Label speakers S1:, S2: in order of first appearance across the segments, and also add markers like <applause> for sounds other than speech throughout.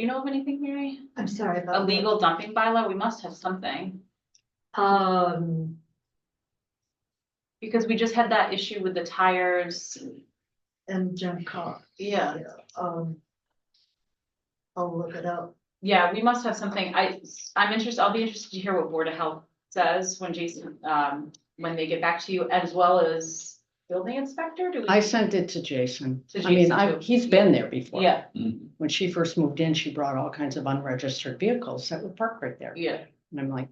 S1: You know of anything, Mary?
S2: I'm sorry about.
S1: A
S2: that.
S1: legal dumping bylaw? We must have something.
S2: Um,
S1: Because we just had that issue with the tires.
S2: and junk car,
S3: Yeah,
S2: um. I'll look it up.
S1: Yeah, we must have something. I, I'm interested, I'll be interested to hear what Board of Health says when Jason, um, when they get back to you, as well as building inspector, do we?
S4: I sent it to Jason.
S1: To
S4: I mean,
S1: Jason,
S4: I,
S1: too.
S4: he's been there before.
S1: Yeah,
S5: Mm-hmm.
S4: When she first moved in, she brought all kinds of unregistered vehicles that were parked right there.
S1: yeah,
S4: And I'm like,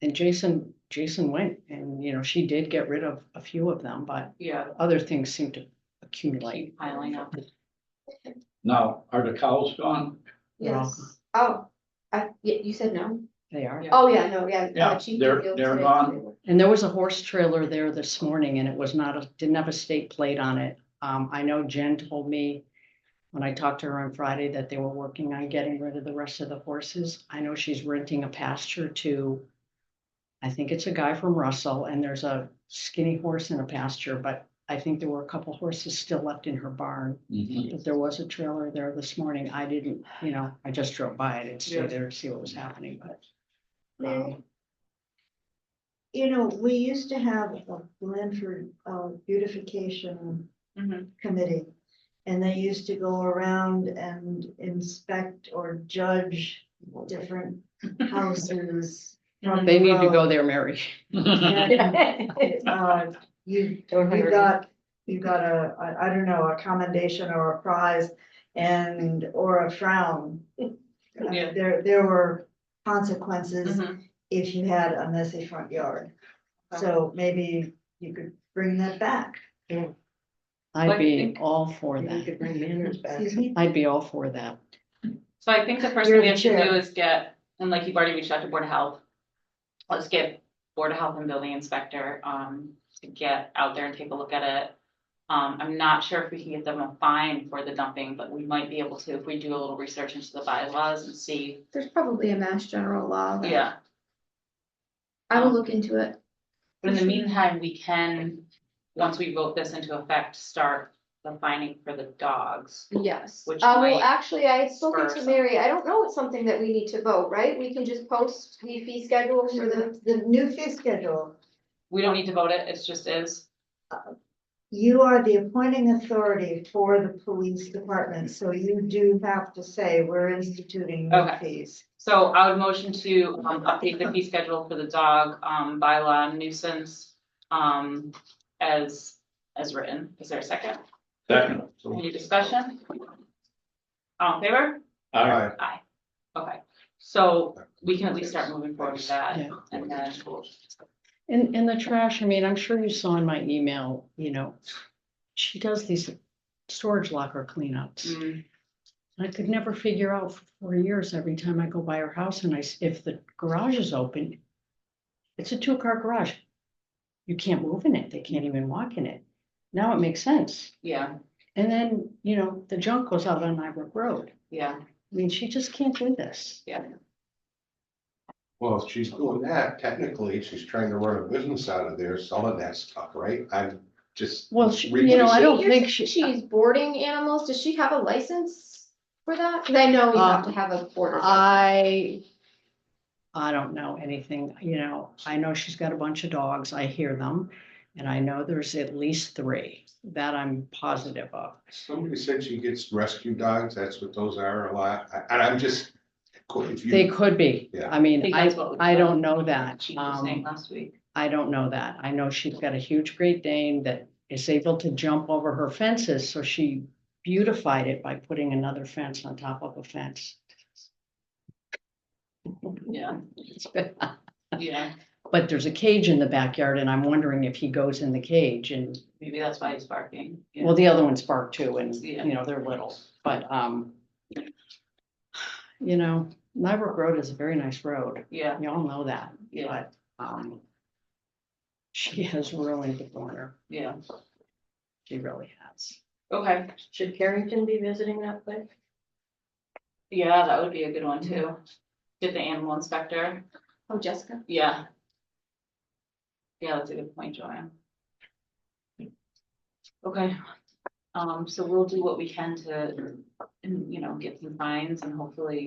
S4: and Jason, Jason went and, you know, she did get rid of a few of them, but
S1: yeah,
S4: other things seem to accumulate.
S1: piling up.
S5: Now, are the cows gone?
S4: They're all
S6: Yes. Oh, I, you, you said no?
S4: They are.
S1: Yeah.
S6: Oh, yeah, no, yeah.
S5: Yeah,
S6: uh, Chief
S5: they're-
S6: revealed
S5: they're
S6: today that
S5: gone.
S6: they were-
S4: And there was a horse trailer there this morning and it was not, a didn't have a state plate on it. Um, I know Jen told me when I talked to her on Friday that they were working on getting rid of the rest of the horses. I know she's renting a pasture to, I think it's a guy from Russell and there's a skinny horse in a pasture, but I think there were a couple horses still left in her barn. But there was a trailer there this morning. I didn't, you know, I just drove by. I didn't stay
S1: Yeah.
S4: there to see what was happening, but.
S2: Mary?
S4: um,
S2: You know, we used to have a Blanford uh beautification
S1: Mhm.
S2: committee. And they used to go around and inspect or judge different houses. from
S4: They
S2: the
S4: need to
S2: road.
S4: go there, Mary.
S5: Mm-hmm.
S1: <laughs>
S2: And, uh, You, you
S1: Mm-hmm.
S2: got, you got a, I, I don't know, a commendation or a prize and, or a frown. Uh,
S1: <laughs> Yeah.
S2: There, there were consequences
S1: Mhm.
S2: if you had a messy front yard.
S1: Uh-huh.
S2: So maybe you could bring that back.
S1: But I
S4: I'd be
S1: think-
S4: all for
S3: you
S4: that.
S3: could bring manners back.
S2: Excuse me?
S4: I'd be all for that.
S1: So I think the first
S2: You're
S1: thing we
S2: the
S1: have to
S2: chair.
S1: do is get, and like you've already reached out to Board of Health. Let's get Board of Health and Building Inspector, um, to get out there and take a look at it. Um, I'm not sure if we can get them a fine for the dumping, but we might be able to if we do a little research into the bylaws and see,
S6: There's probably a mass general law. that-
S1: yeah.
S6: I will look into it.
S1: But in the meantime, we can, once we vote this into effect, start the finding for the dogs.
S6: Yes. Uh,
S1: Which
S6: well,
S1: might
S6: actually, I had spoken
S1: spur
S6: to
S1: some-
S6: Mary. I don't know it's something that we need to vote, right? We can just post the fee schedule for the,
S2: The new fee schedule,
S1: We don't need to vote it, it's just is.
S2: you are the appointing authority for the police department, so you do have to say we're instituting new
S1: Okay.
S2: fees.
S1: So I would motion to um update the fee schedule for the dog um bylaw nuisance um as as written. Is there a second?
S5: Second.
S1: Any discussion? All in favor?
S5: All right.
S1: Aye. Okay, so we can at least start moving forward with that
S4: Yeah.
S1: and uh, then.
S4: And, and the trash, I mean, I'm sure you saw in my email, you know, she does these storage locker cleanups.
S1: mm,
S4: I could never figure out for four years, every time I go by her house and I, s- if the garage is open, it's a two-car garage. You can't move in it. They can't even walk in it. Now it makes sense.
S1: Yeah,
S4: And then, you know, the junk goes out on Nybrook Road.
S1: yeah,
S4: I mean, she just can't do this.
S7: Well, if she's doing that, technically, she's trying to run a business out of there selling that stuff, right? I'm just.
S4: Well, she-
S7: reading
S4: you know, I
S7: this-
S4: don't
S6: Here's-
S4: think she. uh,
S6: she's boarding animals. Does she have a license for that? Cause I know you
S4: Uh,
S6: have to have a border.
S4: I, I don't know anything, you know, I know she's got a bunch of dogs, I hear them, and I know there's at least three that I'm positive of.
S7: Somebody said she gets rescue dogs, that's what those are a lot, I- and I'm just, if
S4: They
S7: you,
S4: could be,
S7: Yeah.
S4: I
S1: I
S4: mean,
S1: think
S4: I,
S1: that's what we-
S4: I don't know that,
S1: she was saying
S4: um,
S1: last week.
S4: I don't know that, I know she's got a huge Great Dane that is able to jump over her fences, so she beautified it by putting another fence on top of a fence.
S1: Yeah,
S4: <laughs> It's been-
S1: yeah,
S4: But there's a cage in the backyard, and I'm wondering if he goes in the cage and
S1: maybe that's why he's barking. yeah.
S4: Well, the other one's bark too, and,
S1: Yeah.
S4: you know, they're little, but, um, you know, Nybrook Road is a very nice road,
S1: Yeah,
S4: y'all know that,
S1: yeah,
S4: but, um, she has ruined the corner,
S1: yeah,
S4: she really has.
S1: okay,
S3: Should Carrington be visiting that place?
S1: yeah, that would be a good one too. Did the animal inspector,
S6: Oh, Jessica.
S1: yeah. Yeah, that's a good point, Joanne. Okay, um, so we'll do what we can to, you know, get some fines and hopefully